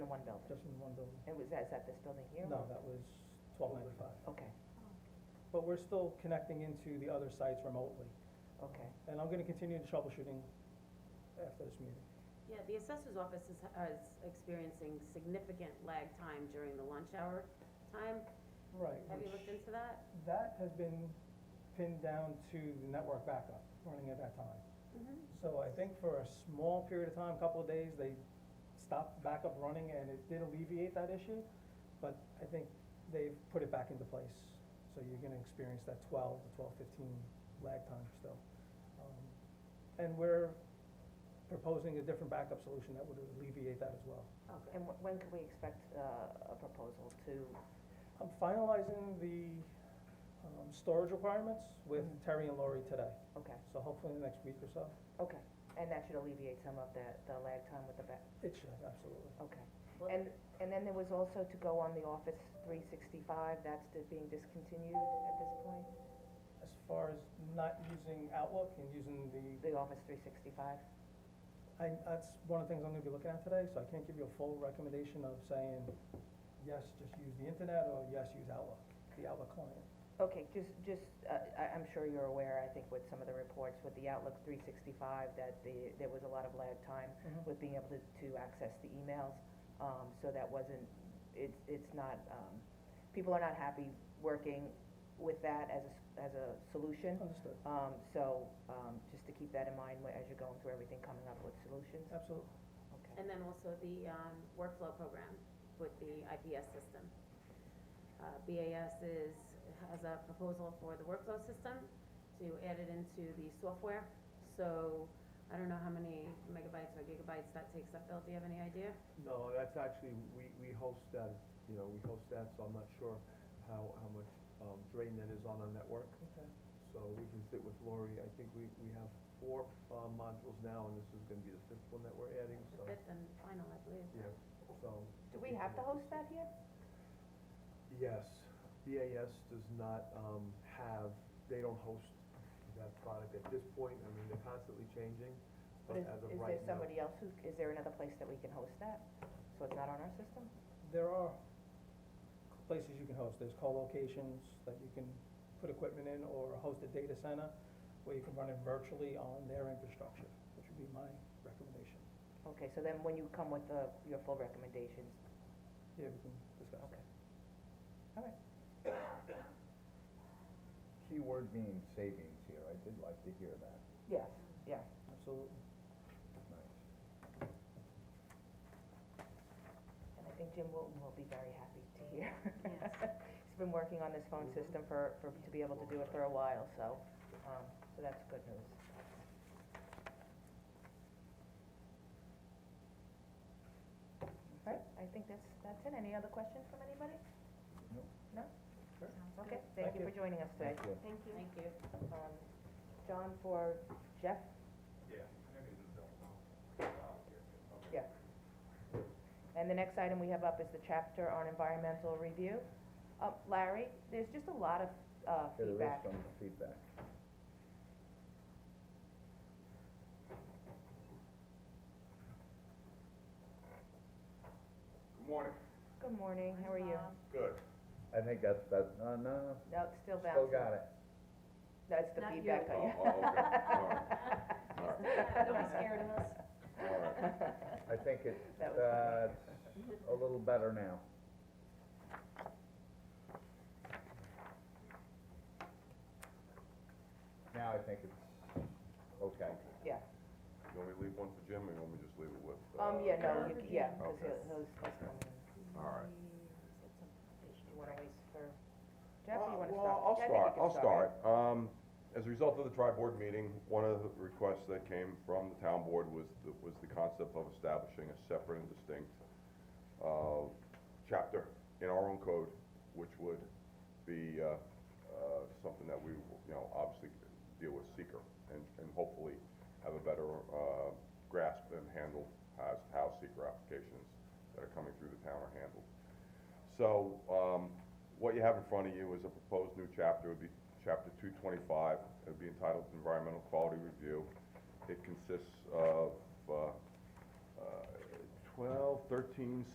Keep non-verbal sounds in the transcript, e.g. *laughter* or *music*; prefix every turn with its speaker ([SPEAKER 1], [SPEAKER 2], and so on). [SPEAKER 1] one building?
[SPEAKER 2] just in one building.
[SPEAKER 1] It was, is that this building here?
[SPEAKER 2] No, that was twelve ninety-five.
[SPEAKER 1] Okay,
[SPEAKER 2] But we're still connecting into the other sites remotely,
[SPEAKER 1] okay.
[SPEAKER 2] and I'm gonna continue the troubleshooting after this meeting.
[SPEAKER 3] Yeah, the assessor's office is, is experiencing significant lag time during the lunch hour time.
[SPEAKER 2] Right.
[SPEAKER 3] Have you
[SPEAKER 2] which-
[SPEAKER 3] looked into that?
[SPEAKER 2] That has been pinned down to the network backup running at that time.
[SPEAKER 3] Mm-hmm.
[SPEAKER 2] So I think for a small period of time, a couple of days, they stopped backup running and it did alleviate that issue. But I think they've put it back into place, so you're gonna experience that twelve to twelve fifteen lag time still. Um, And we're proposing a different backup solution that would alleviate that as well.
[SPEAKER 3] Okay.
[SPEAKER 1] And wh- when can we expect, uh, a proposal to,
[SPEAKER 2] I'm finalizing the, um, storage requirements with Terry and Lori today,
[SPEAKER 1] okay,
[SPEAKER 2] so hopefully in the next week or so.
[SPEAKER 1] okay. And that should alleviate some of the, the lag time with the back,
[SPEAKER 2] It should, absolutely.
[SPEAKER 1] okay.
[SPEAKER 3] Well-
[SPEAKER 1] And, and then there was also to go on the Office three sixty-five, that's di- being discontinued at this point?
[SPEAKER 2] As far as not using Outlook and using the,
[SPEAKER 1] The Office three sixty-five?
[SPEAKER 2] I, that's one of the things I'm gonna be looking at today, so I can't give you a full recommendation of saying, yes, just use the internet, or yes, use Outlook, the Outlook client.
[SPEAKER 1] Okay, just, just, uh, I, I'm sure you're aware, I think with some of the reports with the Outlook three sixty-five, that the, there was a lot of lag time
[SPEAKER 2] Mhm.
[SPEAKER 1] with being able to, to access the emails. Um, so that wasn't, it's, it's not, um, people are not happy working with that as a, s- as a solution.
[SPEAKER 2] Understood,
[SPEAKER 1] Um, so, um, just to keep that in mind wh- as you're going through everything, coming up with solutions,
[SPEAKER 2] absolutely.
[SPEAKER 1] okay?
[SPEAKER 3] And then also the, um, workflow program with the IPS system. Uh, BAS is, has a proposal for the workflow system to add it into the software. So I don't know how many megabytes or gigabytes that takes up, Bill, do you have any idea?
[SPEAKER 4] No, that's actually, we, we host that, you know, we host that, so I'm not sure how, how much, um, drain that is on our network.
[SPEAKER 2] Okay.
[SPEAKER 4] So we can sit with Lori, I think we, we have four, uh, modules now, and this is gonna be the fifth one that we're adding, so,
[SPEAKER 3] The fifth and final, I believe.
[SPEAKER 4] yeah, so.
[SPEAKER 1] Do we have to host that here?
[SPEAKER 4] Yes, BAS does not, um, have, they don't host that product at this point, I mean, they're constantly changing, but
[SPEAKER 1] Is,
[SPEAKER 4] as of
[SPEAKER 1] is
[SPEAKER 4] right now.
[SPEAKER 1] there somebody else who, is there another place that we can host that? So it's not on our system?
[SPEAKER 2] There are places you can host, there's co-locations that you can put equipment in, or host a data center where you can run it virtually on their infrastructure, which would be my recommendation.
[SPEAKER 1] Okay, so then when you come with the, your full recommendations,
[SPEAKER 2] Yeah, we can discuss that.
[SPEAKER 5] Keyword being savings here, I did like to hear that,
[SPEAKER 1] yes, yes.
[SPEAKER 2] Absolutely.
[SPEAKER 5] nice.
[SPEAKER 1] And I think Jim Wilton will be very happy to hear.
[SPEAKER 3] Yes.
[SPEAKER 1] He's been working on this phone system for, for, to be able to do it for a while, so, um, so that's good news. All right, I think that's, that's it. Any other questions from anybody?
[SPEAKER 5] Nope.
[SPEAKER 1] No?
[SPEAKER 2] Sure.
[SPEAKER 1] Okay, thank
[SPEAKER 2] Thank
[SPEAKER 1] you
[SPEAKER 2] you.
[SPEAKER 1] for joining us today.
[SPEAKER 5] Thank you.
[SPEAKER 3] Thank you.
[SPEAKER 1] Um, John for Jeff? Yeah. And the next item we have up is the chapter on environmental review. Uh, Larry, there's just a lot of, uh,
[SPEAKER 5] There is
[SPEAKER 1] feedback.
[SPEAKER 5] some feedback.
[SPEAKER 6] Good morning.
[SPEAKER 1] Good morning, how are you?
[SPEAKER 6] Good.
[SPEAKER 5] I think that's, that's, no, no,
[SPEAKER 1] No, it's still bouncing.
[SPEAKER 5] still got it.
[SPEAKER 1] That's the
[SPEAKER 3] Not you.
[SPEAKER 1] feedback
[SPEAKER 6] Oh,
[SPEAKER 1] on you.
[SPEAKER 6] oh, okay, all right, all right,
[SPEAKER 3] Don't be scared of us.
[SPEAKER 6] all right.
[SPEAKER 5] I think it's,
[SPEAKER 1] That was
[SPEAKER 5] uh, a little better now. Now I think it's okay.
[SPEAKER 1] *laughs* Yeah,
[SPEAKER 6] You want me to leave one for Jim, or you want me to just leave it with? uh,
[SPEAKER 1] um, yeah, no,
[SPEAKER 6] Karen?
[SPEAKER 1] you- yeah, because
[SPEAKER 6] Okay.
[SPEAKER 1] he'll, he'll, he'll come in.
[SPEAKER 6] All right.
[SPEAKER 1] You wanna wait for Jeff, or you wanna start?
[SPEAKER 6] Uh, Well, I'll
[SPEAKER 1] I think you
[SPEAKER 6] start,
[SPEAKER 1] can
[SPEAKER 6] I'll start. Um, as a result of the tri-board meeting, one of the requests that came from the town board was, the- was the concept of establishing a separate and distinct, uh, chapter in our own code, which would be, uh, uh, something that we, you know, obviously deal with seeker and, and hopefully have a better, uh, grasp and handle as, how seeker applications that are coming through the town are handled. So, um, what you have in front of you is a proposed new chapter, it would be chapter two twenty-five, it would be entitled Environmental Quality Review. It consists of, uh, uh, 12, 13